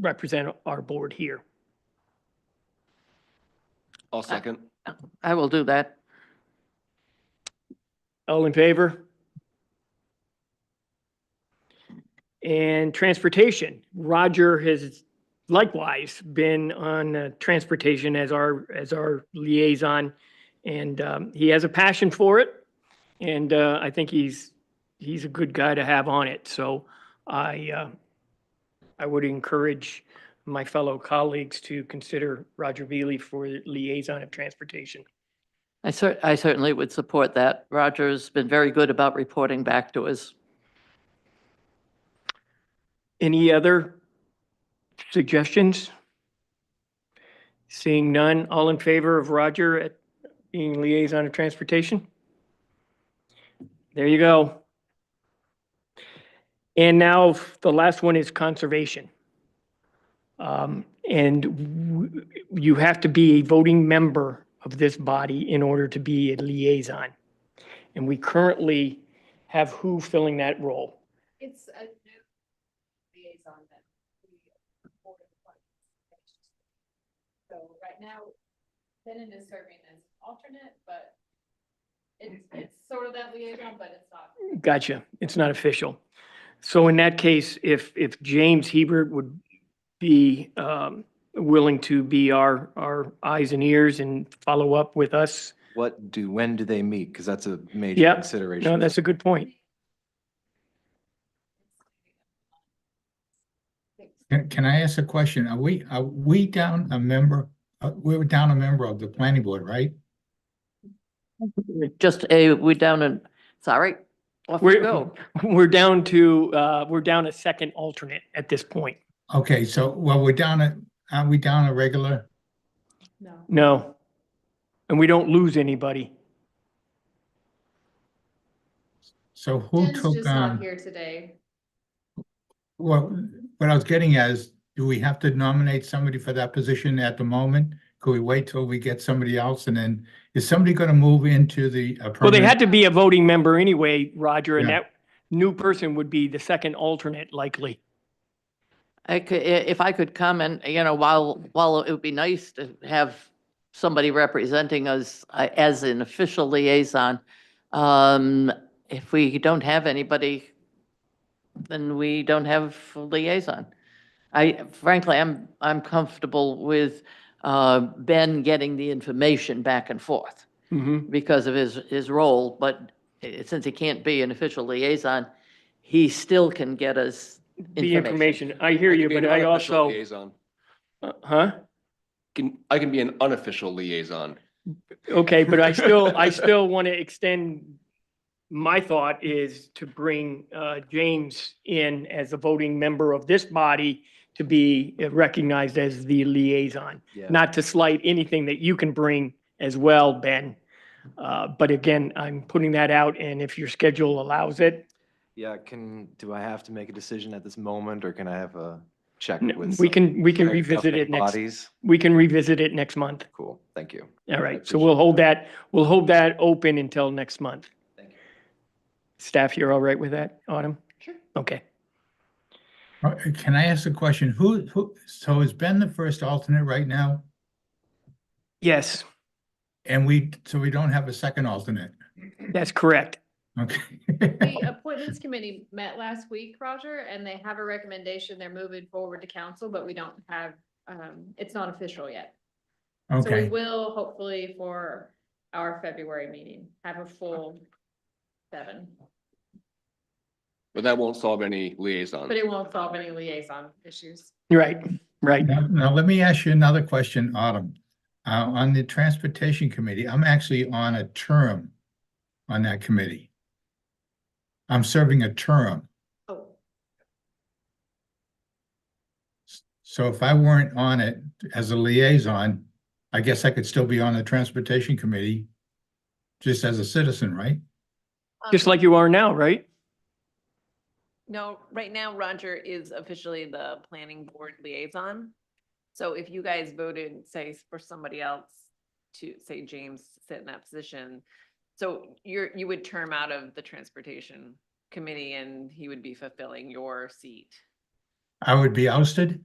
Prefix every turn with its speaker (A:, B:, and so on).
A: represent our board here. Uh,
B: I'll second.
C: I will do that.
A: All in favor? And transportation, Roger has likewise been on uh, transportation as our, as our liaison. And um, he has a passion for it. And uh, I think he's, he's a good guy to have on it. So I, uh, I would encourage my fellow colleagues to consider Roger Beely for liaison of transportation.
C: I cer, I certainly would support that. Roger's been very good about reporting back to us.
A: Any other suggestions? Seeing none, all in favor of Roger at being liaison of transportation? There you go. And now the last one is conservation. Um, And w- you have to be a voting member of this body in order to be a liaison. And we currently have who filling that role?
D: It's a new liaison that we board of Finance. So right now, Denon is serving as alternate, but it's, it's sort of that liaison, but it's not.
A: Gotcha. It's not official. So in that case, if, if James Hebert would be um, willing to be our, our eyes and ears and follow up with us,
B: What do, when do they meet? Because that's a major
A: Yep.
B: consideration.
A: no, that's a good point.
E: Can, can I ask a question? Are we, are we down a member, uh, we were down a member of the planning board, right?
C: Just a, we down and, sorry, off you
A: We're-
C: go.
A: We're down to, uh, we're down a second alternate at this point.
E: Okay, so, well, we're down a, are we down a regular?
D: No.
A: No. And we don't lose anybody.
E: So who
D: Den's
E: took
D: just not
E: on,
D: here today.
E: well, what I was getting at is, do we have to nominate somebody for that position at the moment? Could we wait till we get somebody else and then, is somebody gonna move into the? uh,
A: Well, they had
E: permanent-
A: to be a voting member anyway, Roger, and
E: Yeah.
A: that new person would be the second alternate likely.
C: I could, i- if I could comment, you know, while, while it would be nice to have somebody representing us uh, as an official liaison, um, if we don't have anybody, then we don't have a liaison. I frankly, I'm, I'm comfortable with, uh, Ben getting the information back and forth
A: Mm-hmm.
C: because of his, his role, but i- since he can't be an official liaison, he still can get us
A: The information. I hear you, but I also, Uh, huh?
B: Can, I can be an unofficial liaison.
A: Okay, but I still, I still want to extend, my thought is to bring uh, James in as a voting member of this body to be recognized as the liaison,
B: Yeah.
A: not to slight anything that you can bring as well, Ben. Uh, But again, I'm putting that out, and if your schedule allows it,
B: Yeah, can, do I have to make a decision at this moment or can I have a check
A: n-
B: with?
A: we
B: some
A: can, we can
B: higher
A: revisit
B: governing
A: it next,
B: Bodies?
A: we can revisit it next month.
B: Cool, thank you.
A: All right, so
B: appreciate
A: we'll hold that, we'll hold that open until next month.
B: Thank you.
A: Staff, you're all right with that, Autumn?
C: Sure.
A: Okay.
E: Uh, Can I ask a question? Who, who, so is Ben the first alternate right now?
A: Yes,
E: And we, so we don't have a second alternate,
A: that's correct.
E: okay?
D: The appointments committee met last week, Roger, and they have a recommendation. They're moving forward to council, but we don't have, um, it's not official yet. So we
E: Okay,
D: will hopefully for our February meeting, have a full seven,
B: But that won't solve any liaison.
D: but it won't solve any liaison issues.
A: Right, right.
E: now, now let me ask you another question, Autumn. Uh, on the transportation committee, I'm actually on a term on that committee. I'm serving a term,
D: Oh,
E: so if I weren't on it as a liaison, I guess I could still be on the transportation committee just as a citizen, right?
A: Just like you are now, right?
F: No, right now Roger is officially the planning board liaison. So if you guys voted, say, for somebody else to, say, James to sit in that position, so you're, you would term out of the transportation committee and he would be fulfilling your seat.
E: I would be ousted?